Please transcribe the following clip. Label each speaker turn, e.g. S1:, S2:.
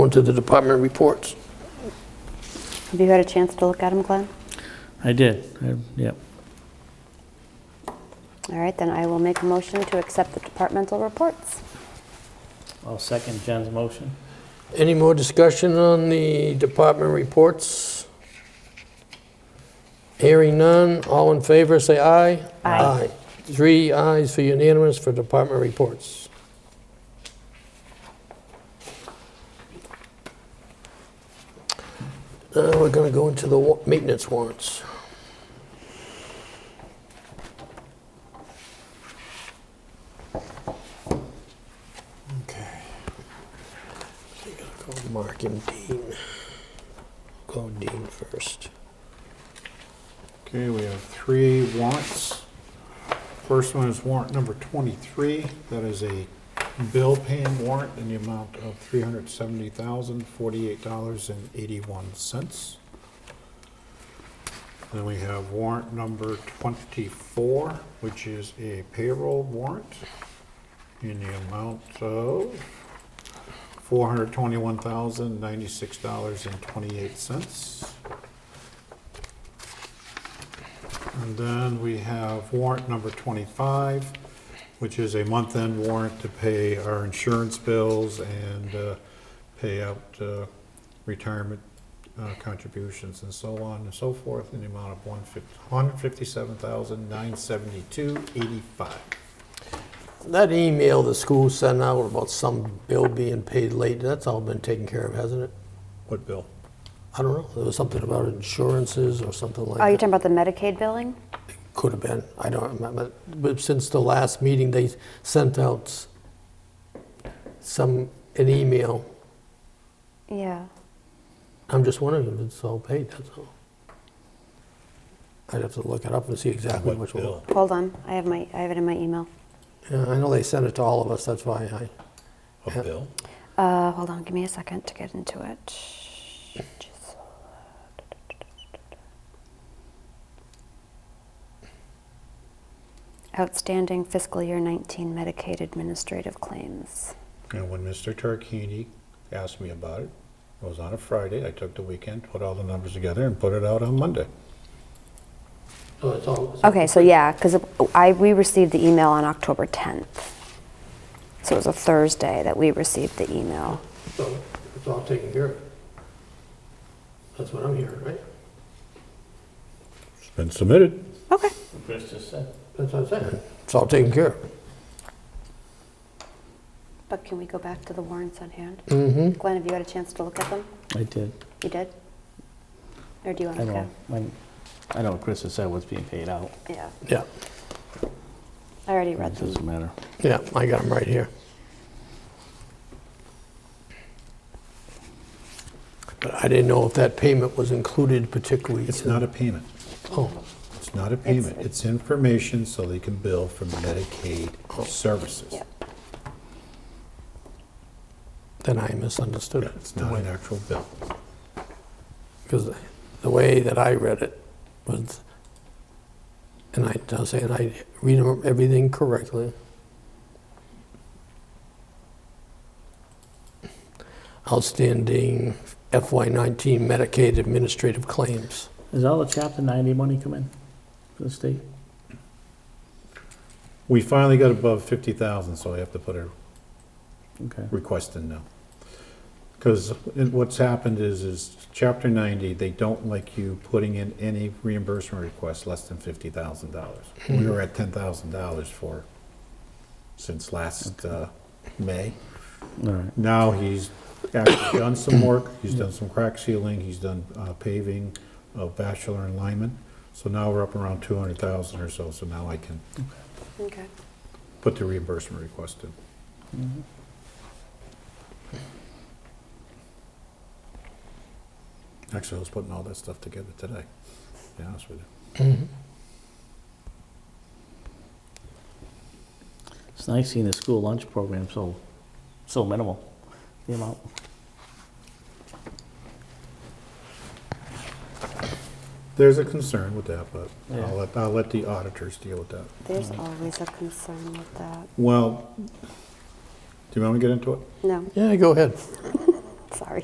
S1: Go into the department reports.
S2: Have you had a chance to look at them, Glenn?
S3: I did, I- yep.
S2: All right, then I will make a motion to accept the departmental reports.
S3: I'll second Jen's motion.
S1: Any more discussion on the department reports? Hearing none, all in favor, say aye.
S2: Aye.
S1: Three ayes for unanimous for department reports. Now we're going to go into the wa- maintenance warrants. Okay. We gotta call Mark and Dean. Call Dean first.
S4: Okay, we have three warrants. First one is warrant number 23. That is a bill paying warrant in the amount of $370,048.81. Then we have warrant number 24, which is a payroll warrant in the amount of $421,096.28. And then we have warrant number 25, which is a month-end warrant to pay our insurance bills and uh, pay out uh, retirement uh, contributions and so on and so forth in the amount of $157,972.85.
S1: That email the school sent out about some bill being paid late, that's all been taken care of, hasn't it?
S4: What bill?
S1: I don't know, there was something about insurances or something like
S2: Oh, you're
S1: that.
S2: talking about the Medicaid billing?
S1: Could have been, I don't remember. But since the last meeting, they sent out some, an email.
S2: Yeah.
S1: I'm just wondering if it's all paid, that's all. I'd have to look it up and see exactly
S4: What
S1: which one.
S4: bill?
S2: Hold on, I have my, I have it in my email.
S1: Yeah, I know they sent it to all of us, that's why I,
S4: A bill?
S2: Uh, hold on, give me a second to get into it. Just- Outstanding fiscal year 19 Medicaid administrative claims.
S4: And when Mr. Tarquini asked me about it, it was on a Friday, I took the weekend, put all the numbers together and put it out on Monday.
S1: oh, it's all.
S2: Okay, so yeah, because I, we received the email on October 10th. So it was a Thursday that we received the email.
S1: So it's all taken care of. That's what I'm hearing, right?
S4: It's been submitted.
S2: Okay.
S3: Chris just said.
S1: That's what I'm saying. It's all taken care of.
S2: But can we go back to the warrants on hand?
S1: Mm-hmm.
S2: Glenn, have you had a chance to look at them?
S3: I did.
S2: You did? Or do you want
S3: I
S2: to
S3: know,
S2: go?
S3: I'm- I know what Chris has said what's being paid out.
S2: Yeah,
S1: Yeah,
S2: I already
S3: It
S2: read them.
S3: doesn't matter.
S1: yeah, I got them right here. But I didn't know if that payment was included particularly.
S4: It's
S1: in-
S4: not a payment.
S1: Oh,
S4: It's not a payment, it's information so they can bill for Medicaid services.
S2: Yeah.
S1: then I misunderstood it.
S4: It's not an actual bill.
S1: Because the way that I read it was, and I, I'm saying I read 'em everything correctly. Outstanding FY19 Medicaid administrative claims.
S3: Is all the chapter ninety money come in for the state?
S4: We finally got above 50,000, so I have to put a
S3: Okay.
S4: request in now. Because what's happened is, is Chapter 90, they don't like you putting in any reimbursement request less than $50,000. We were at $10,000 for, since last uh, May.
S3: All right.
S4: Now he's actually done some work, he's done some crack sealing, he's done uh, paving of Bachelor and Lyman. So now we're up around 200,000 or so, so now I can
S2: Okay.
S4: put the reimbursement request in. Actually, I was putting all that stuff together today, to be honest with you.
S3: It's nice seeing the school lunch program so, so minimal, the amount.
S4: There's a concern with that, but
S3: Yeah.
S4: I'll let, I'll let the auditors deal with that.
S2: There's always a concern with that.
S4: Well, do you want me to get into it?
S2: No.
S1: Yeah, go ahead.